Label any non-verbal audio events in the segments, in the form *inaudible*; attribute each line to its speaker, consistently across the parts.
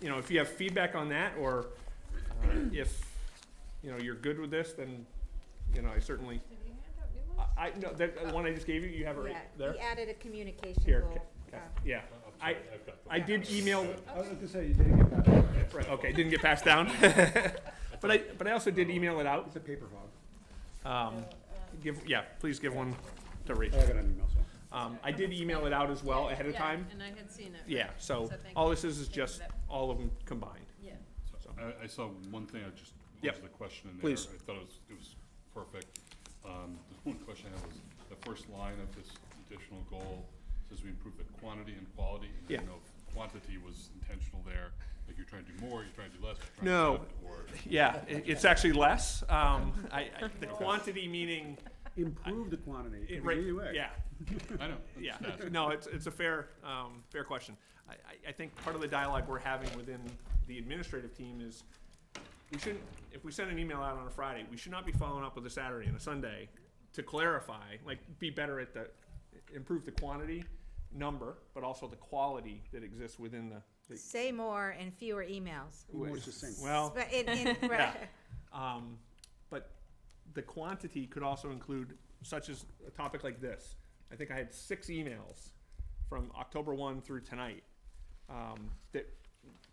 Speaker 1: you know, if you have feedback on that, or uh, if, you know, you're good with this, then, you know, I certainly,
Speaker 2: Did you hand out new ones?
Speaker 1: I, I, no, that, the one I just gave you, you have it right
Speaker 3: Yeah,
Speaker 1: there?
Speaker 3: he added a communication
Speaker 1: Here,
Speaker 3: goal.
Speaker 1: Ca- Ca-
Speaker 3: Uh,
Speaker 1: yeah, I-
Speaker 4: Oh, I've got the-
Speaker 1: I did email,
Speaker 4: *laughs*
Speaker 5: I was gonna say, you didn't get that.
Speaker 1: right, okay, didn't get passed down. *laughs* But I, but I also did email it out,
Speaker 5: It's a paper hog.
Speaker 1: um, give, yeah, please give one to
Speaker 5: Oh, I
Speaker 1: Rachel.
Speaker 5: got an email, so.
Speaker 1: Um, I did email it out as well ahead of
Speaker 2: Yeah,
Speaker 1: time,
Speaker 2: And I had seen it.
Speaker 1: yeah, so,
Speaker 2: So thank
Speaker 1: all
Speaker 2: you.
Speaker 1: this is is
Speaker 2: Thank you,
Speaker 1: just
Speaker 2: that-
Speaker 1: all of them combined.
Speaker 2: Yeah.
Speaker 4: So I, I saw one thing, I just,
Speaker 1: Yep.
Speaker 4: was the question in there.
Speaker 1: Please.
Speaker 4: I thought it was, it was perfect. Um, the one question I had was, the first line of this additional goal says we improve the quantity and quality. and I
Speaker 1: Yeah.
Speaker 4: don't know if quantity was intentional there, like you're trying to do more, you're trying to do less, you're trying
Speaker 1: No.
Speaker 4: to cut, or.
Speaker 1: Yeah, i it's actually less, um, I, I, the quantity meaning,
Speaker 5: Improve the quantity,
Speaker 1: it,
Speaker 5: it
Speaker 1: right,
Speaker 5: could be either way.
Speaker 1: yeah,
Speaker 4: I
Speaker 2: *laughs*
Speaker 4: know. I'm
Speaker 1: yeah.
Speaker 4: just asking.
Speaker 1: No, it's, it's a fair, um, fair question. I, I, I think part of the dialogue we're having within the administrative team is, we shouldn't, if we send an email out on a Friday, we should not be following up with a Saturday and a Sunday to clarify, like, be better at the, improve the quantity, number, but also the quality that exists within the. the-
Speaker 3: Uh, Say more and fewer emails.
Speaker 5: Be more succinct.
Speaker 1: Well.
Speaker 3: But in, in,
Speaker 1: *laughs* Yeah.
Speaker 3: right.
Speaker 1: Um, but the quantity could also include such as a topic like this. I think I had six emails from October one through tonight. Um, that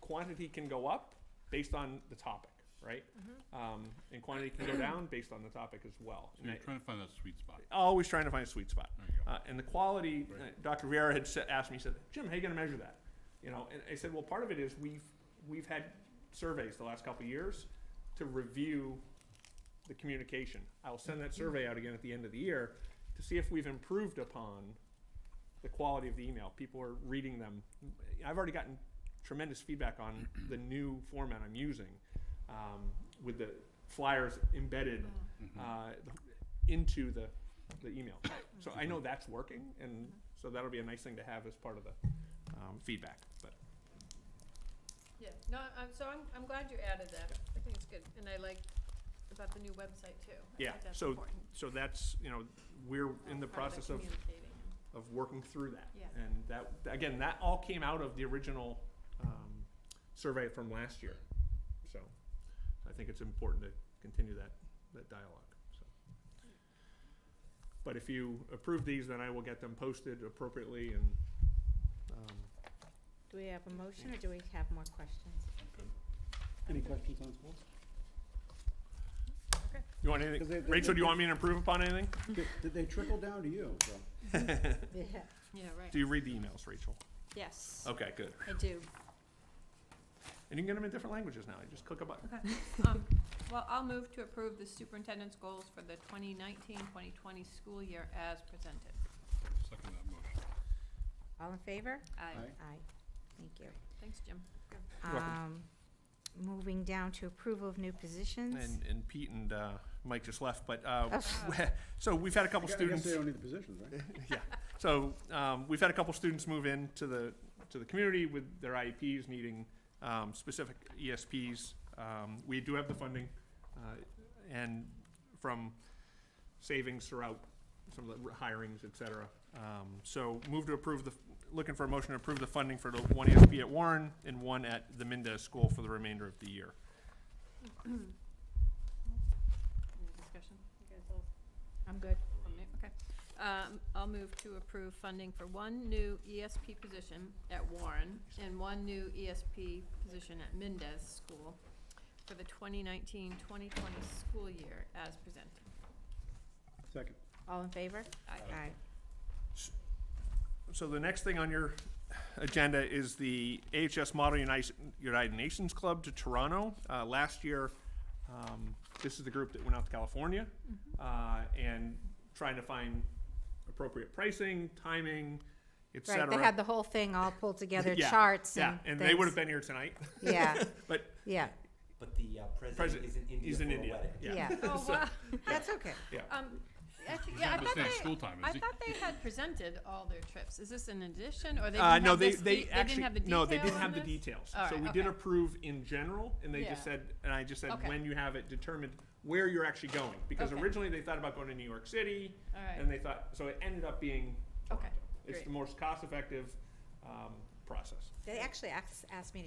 Speaker 1: quantity can go up based on the topic, right? Um, and quantity can go down based on the topic as well.
Speaker 4: So
Speaker 1: And
Speaker 4: you're
Speaker 1: I-
Speaker 4: trying to find that sweet spot.
Speaker 1: always trying to find a sweet spot.
Speaker 4: There you go.
Speaker 1: Uh, and the quality, uh,
Speaker 4: Right.
Speaker 1: Dr. Viera had sa- asked me, he said, Jim, how you gonna measure that? You know, and I said, well, part of it is we've, we've had surveys the last couple of years to review the communication. I'll send that survey out again at the end of the year to see if we've improved upon the quality of the email. People are reading them. I've already gotten tremendous feedback
Speaker 4: *clears throat*
Speaker 1: on the new format I'm using um, with the flyers embedded
Speaker 4: Mm-hmm.
Speaker 1: uh, the- into the, the email. So I know that's working, and so that'll be a nice thing to have as part of the um, feedback. But
Speaker 2: Yeah, no, I'm, so I'm, I'm glad you added that. I think it's good. And I like about the new website too. I
Speaker 1: Yeah,
Speaker 2: think that's
Speaker 1: so
Speaker 2: important.
Speaker 1: so that's you know we're in the
Speaker 2: Part
Speaker 1: process of
Speaker 2: communicating.
Speaker 1: of working through that.
Speaker 2: Yeah.
Speaker 1: And that, again, that all came out of the original um, survey from last year. So I think it's important to continue that, that dialogue, so. But if you approve these, then I will get them posted appropriately and, um,
Speaker 3: Do we have a motion or do we have more questions?
Speaker 4: Okay.
Speaker 5: Any questions on schools?
Speaker 1: you want
Speaker 5: 'Cause
Speaker 1: anything,
Speaker 5: they- they-
Speaker 1: Rachel, do you want me to improve upon anything?
Speaker 5: Did, did they trickle down to you, so?
Speaker 3: Yeah.
Speaker 2: Yeah, right.
Speaker 1: Do you read the emails, Rachel?
Speaker 2: *laughs* Yes,
Speaker 1: Okay, good.
Speaker 2: I do.
Speaker 1: And you can get them in different languages now, you just click a button.
Speaker 2: Um, Well, I'll move to approve the superintendent's goals for the 2019-2020 school year as presented. Uh,
Speaker 4: Second that motion.
Speaker 3: All in favor?
Speaker 2: Aye.
Speaker 5: Aye.
Speaker 3: Aye. Thank you.
Speaker 2: Thanks, Jim.
Speaker 1: You're welcome.
Speaker 3: Um, moving down to approval of new positions. Oh,
Speaker 1: And, and Pete and uh, Mike just left, but, uh, *laughs* so we've had a couple
Speaker 5: I gu- I guess
Speaker 1: students.
Speaker 5: they don't need the positions, right?
Speaker 1: *laughs* yeah. So um, we've had a couple students move in to the to the community with their IEPs needing um, specific ESPs. Um, we do have the funding, uh, and from savings throughout some of the hirings, et cetera. Um, so move to approve the looking for a motion to approve the funding for the one ESP at Warren and one at the Mendez School for the remainder of the year.
Speaker 2: Any discussion? You guys all
Speaker 3: I'm good.
Speaker 2: From me, Okay. Um, I'll move to approve funding for one new ESP position at Warren and one new ESP position at Mendez School for the 2019-2020 school year as presented.
Speaker 5: Second.
Speaker 3: *laughs* All in favor?
Speaker 2: Aye.
Speaker 1: Uh,
Speaker 3: Aye.
Speaker 1: So the next thing on your agenda is the AHS Model United, United Nations Club to Toronto. Uh, last year, um, this is the group that went out to California,
Speaker 2: Mm-hmm.
Speaker 1: uh, and trying to find appropriate pricing, timing, et
Speaker 3: Right,
Speaker 1: cetera.
Speaker 3: they had the whole thing all pulled together,
Speaker 1: *laughs* Yeah,
Speaker 3: charts
Speaker 1: Yeah, and
Speaker 3: and
Speaker 1: they would have
Speaker 3: things.
Speaker 1: been here tonight,
Speaker 3: Yeah,
Speaker 1: *laughs* but
Speaker 3: yeah,
Speaker 6: But the uh, president,
Speaker 1: President-
Speaker 6: is in India
Speaker 1: he's in
Speaker 6: for a
Speaker 1: India,
Speaker 6: wedding.
Speaker 1: *laughs* yeah.
Speaker 3: yeah.
Speaker 2: Oh, *laughs*
Speaker 1: So-
Speaker 2: wow.
Speaker 3: That's okay.
Speaker 2: Um, actually,
Speaker 4: He's
Speaker 2: yeah,
Speaker 4: not
Speaker 2: I thought
Speaker 4: understanding
Speaker 2: they,
Speaker 4: school time,
Speaker 2: I
Speaker 4: is he?
Speaker 2: thought they had presented all their trips. Is this an addition or they
Speaker 1: Uh,
Speaker 2: didn't
Speaker 1: no,
Speaker 2: have
Speaker 1: they,
Speaker 2: this, de-
Speaker 1: they
Speaker 2: they
Speaker 1: actually,
Speaker 2: didn't have the detail
Speaker 1: no, they didn't
Speaker 2: on
Speaker 1: have the
Speaker 2: this?
Speaker 1: details.
Speaker 2: All
Speaker 1: So
Speaker 2: right,
Speaker 1: we did
Speaker 2: okay.
Speaker 1: approve in general, and they
Speaker 2: Yeah.
Speaker 1: just said, and I just said,
Speaker 2: Okay.
Speaker 1: when you have it determined where you're actually going. Because
Speaker 2: Okay.
Speaker 1: originally they thought about going to New York City,
Speaker 2: All
Speaker 1: and
Speaker 2: right,
Speaker 1: they thought, so it ended up being,
Speaker 2: okay,
Speaker 1: it's
Speaker 2: great.
Speaker 1: the most cost-effective, um, process.
Speaker 3: They actually asked, asked me to